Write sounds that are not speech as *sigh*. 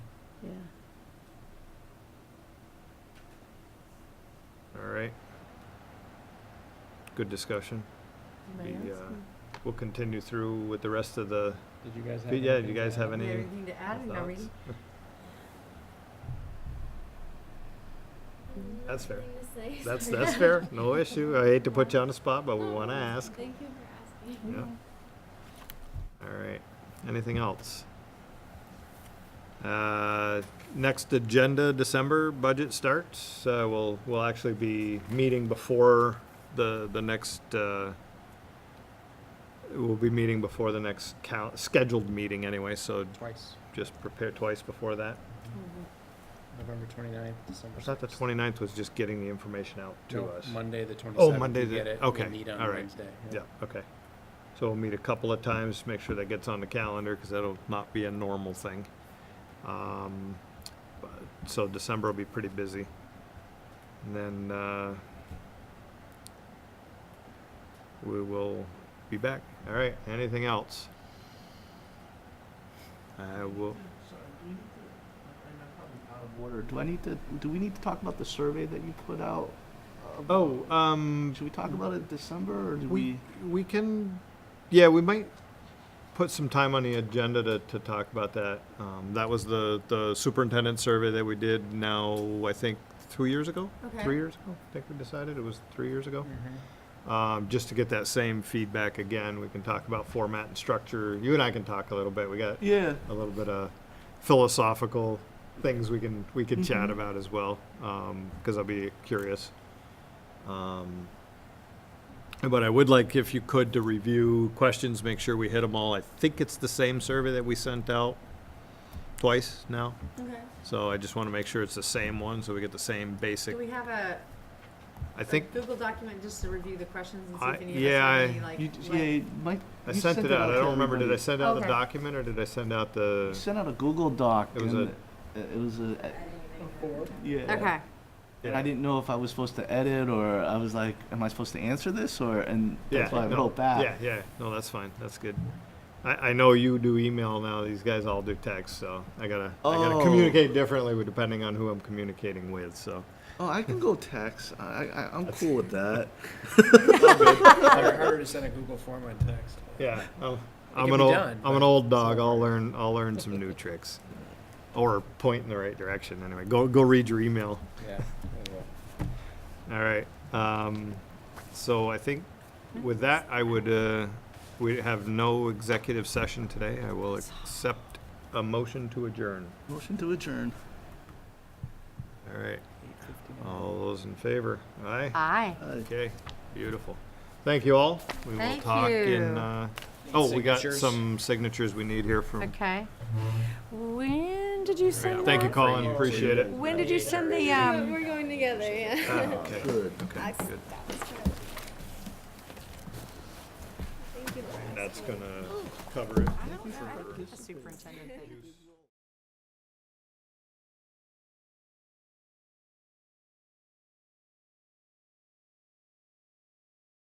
yeah. All right. Good discussion. Anybody The, else? uh, Mm. We'll continue through with the rest of the, Did you guys have? but yeah, do anything you to guys add? have Yeah, any Anything to add, no thoughts? reading? That's fair. That's, that's fair, no issue. I hate to put you on the spot, but we want to ask. Thank you for asking. Yeah. All right, anything else? Uh, Next agenda, December budget starts. Uh, We'll, we'll actually be meeting before the, the next, uh, we'll be meeting before the next cal- scheduled meeting anyway, so Twice, just prepare twice before that. Mhm. November twenty-ninth, December. I thought the 6th. 29th was just getting the information out to No, us. Monday, the twenty-seventh. Oh, Monday the- Get it. okay, We meet on all right. Wednesday. Yeah, okay. So we'll meet a couple of times, make sure that gets on the calendar, because that'll not be a normal thing. Um, but- So December will be pretty busy. And then, uh, we will be back. All right, anything else? I will, Order. Do I need to, do we need to talk about the survey that you put out? Uh, oh, um, Should we talk about it in December or do We, we? we can, yeah, we might put some time on the agenda to, to talk about that. Um, that was the, the superintendent survey that we did now, I think, two years ago? Okay. Three years ago, I think we decided, it was three years ago. Mhm. Um, just to get that same feedback again, we can talk about format and structure. You and I can talk a little bit. We got Yeah. a little bit of philosophical things we can, we can chat Mm-hmm. Mhm. about as well, um, cause I'll be curious. Um, But I would like, if you could, to review questions, make sure we hit them all. I think it's the same survey that we sent out twice now, Okay. so I just wanna make sure it's the same one, so we get the same basic, Do we have a I a think, Google document just to review the questions and see I- if any of us yeah, have I- any, like? You, d- what- yeah, Mike. I you sent it out, I to don't remember, did I everybody. send out the Okay. document, or did I send out the? You sent out a Google Doc. It was and a- it- It was a, yeah. Okay, And I didn't know if I was supposed to edit or I was like, am I supposed to answer this or, and that's why I no, wrote back. Yeah, yeah, no, that's fine, that's good. I, I know you do email now, these guys all do text, so I gotta, I gotta Oh. communicate differently with- depending on who I'm communicating with, so. Oh, I can go text. I, I, I'm cool with that. Harder harder to send a Google form on text. Yeah, I'm, I'm an can be old, done, I'm an but old it's dog. not I'll hard. learn, I'll learn some *laughs* new tricks, or point in the right direction. Anyway, go go read your email. Yeah. we will. All right. Um, so I think with that, I would uh, we have no executive session today. I will accept a motion to adjourn. Motion to adjourn. All right. 8:59. All Oh, those in favor? Aye. aye. Aye. Okay. Beautiful. Thank you all. We Thank will talk in. you. Uh, oh, we got Signatures. some signatures we need here from. Okay. When did you send that? Thank you, Call- Colin. Appreciate it. When did you send the, um, We're going together, yeah. Ah, okay. Good. Okay. Good. That was good. Thank you, Laura. That's gonna cover it. the superintendent thing?